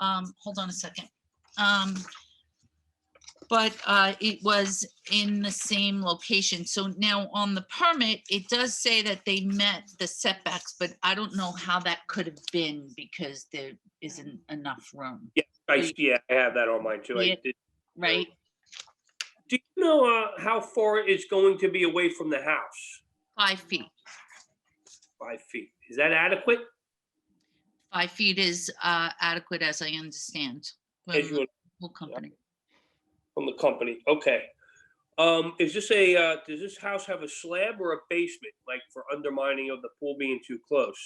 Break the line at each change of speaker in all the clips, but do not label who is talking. um, hold on a second. Um, but, uh, it was in the same location. So now on the permit, it does say that they met the setbacks, but I don't know how that could have been because there isn't enough room,
I, yeah, I have that on mine too.
Yeah.
I did-
right?
Do you know uh, how far it's going to be away from the house?
Five feet.
Five feet. Is that adequate?
Five feet is, uh, adequate as I understand. from
As you,
the pool company.
from the company, okay. Um, is this a, uh, does this house have a slab or a basement, like for undermining of the pool being too close?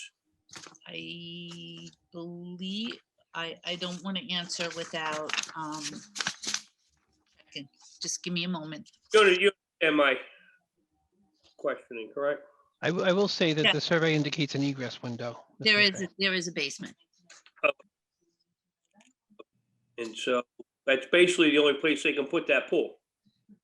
I believe, I, I don't want to answer without, um, checking. just give me a moment.
No, no, you, am I questioning, correct?
I, w- I will say
Yeah.
that the survey indicates an egress window. That's
There
one
is,
thing.
a- there is a basement.
And so that's basically the only place they can put that pool.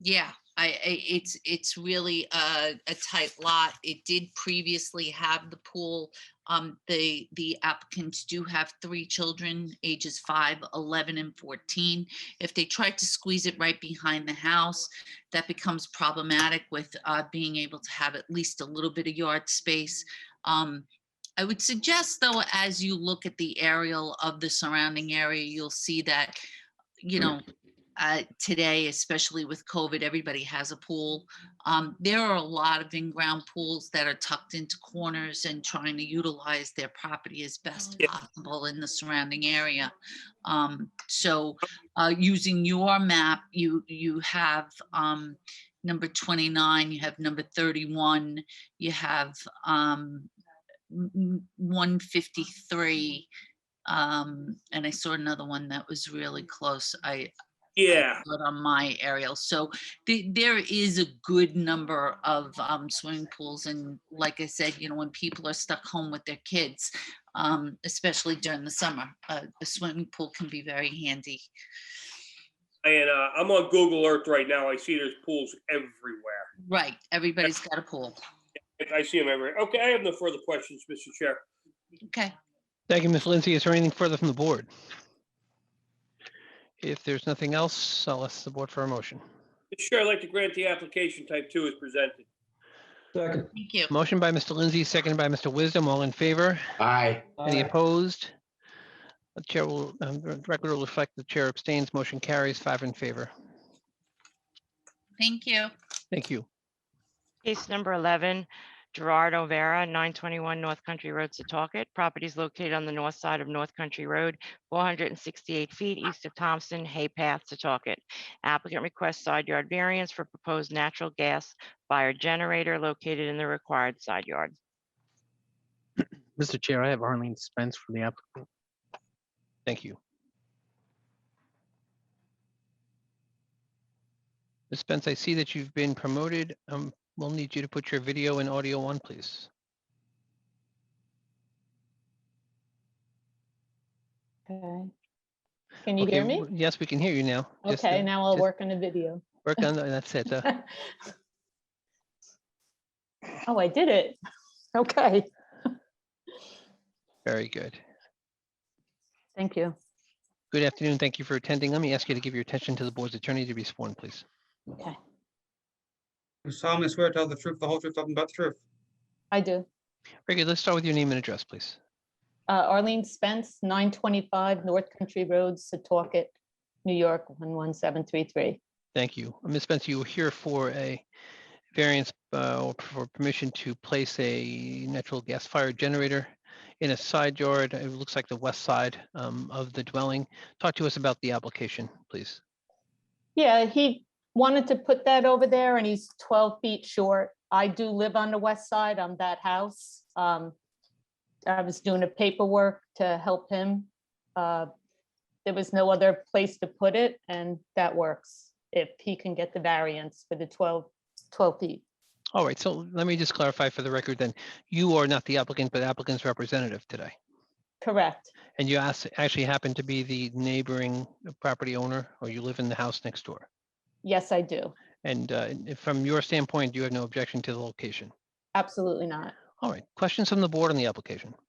Yeah, I, I, it's, it's really a, a tight lot. It did previously have the pool. Um, the, the applicants do have three children, ages five, 11, and 14. If they tried to squeeze it right behind the house, that becomes problematic with, uh, being able to have at least a little bit of yard space. Um, I would suggest though, as you look at the aerial of the surrounding area, you'll see that, you know, uh, today, especially with COVID, everybody has a pool. Um, there are a lot of in-ground pools that are tucked into corners and trying to utilize their property as best
Yeah.
possible in the surrounding area. Um, so, uh, using your map, you, you have, um, number twenty-nine, you have number thirty-one, you have, um, one fifty-three. Um, and I saw another one that was really close. I,
Yeah,
but on my aerial. So the- there is a good number of um, swimming pools. And like I said, you know, when people are stuck home with their kids, um, especially during the summer, uh, a a swimming pool can be very handy.
and, uh, I'm on Google Earth right now. I see there's pools everywhere.
Right, everybody's got a pool.
I see him everywhere. Okay, I have no further questions, Mr. Chair.
Okay,
Thank you, Ms. Lindsay. Is there anything further from the board? If there's nothing else, I'll ask the board for a motion.
Mr. Chair, I'd like to grant the application type two is presented.
Second.
thank you.
Motion by Mr. Lindsay, seconded by Mr. Wisdom. All in favor?
Aye.
Any opposed? The chair will, um, the record will reflect the chair abstains. Motion carries five in favor.
Thank you.
Thank you.
Case number 11, Gerard Overa, 921 North Country Road, Setauket. Properties located on the north side of North Country Road, 468 feet east of Thompson Hay Path, Setauket. Applicant requests side yard variance for proposed natural gas fire generator located in the required side yard.
Mr. Chair, I have Arlene Spence for the applicant.
Thank you. Ms. Spence, I see that you've been promoted. Um, We'll need you to put your video and audio on, please.
Okay. Can you hear
Okay,
me?
w- Yes, we can hear you now. Just,
Okay,
uh,
now I'll
just
work on the video.
Work on, that- that's it. uh,
Oh, I did it. Okay,
Very good.
thank you.
Good afternoon. Thank you for attending. Let me ask you to give your attention to the board's attorney to be sworn, please.
Okay,
You solemnly swear to tell the truth, the whole truth, nothing but the truth.
I do.
Very good. Let's start with your name and address, please.
Uh, Arlene Spence, 925 North Country Road, Setauket, New York, 11733.
Thank you. Ms. Spencer, you were here for a variance uh, or for permission to place a natural gas fired generator in a side yard. It looks like the west side um, of the dwelling. Talk to us about the application, please.
Yeah, he wanted to put that over there and he's twelve feet short. I do live on the west side on that house. Um, I was doing a paperwork to help him. Uh, There was no other place to put it and that works if he can get the variance for the 12 12 feet.
All right, so let me just clarify for the record then, you are not the applicant, but applicant's representative today.
Correct,
And you as- actually happen to be the neighboring property owner, or you live in the house next door.
yes, I do.
And uh, and from your standpoint, you have no objection to the location.
Absolutely not.
All right, questions from the board on the application?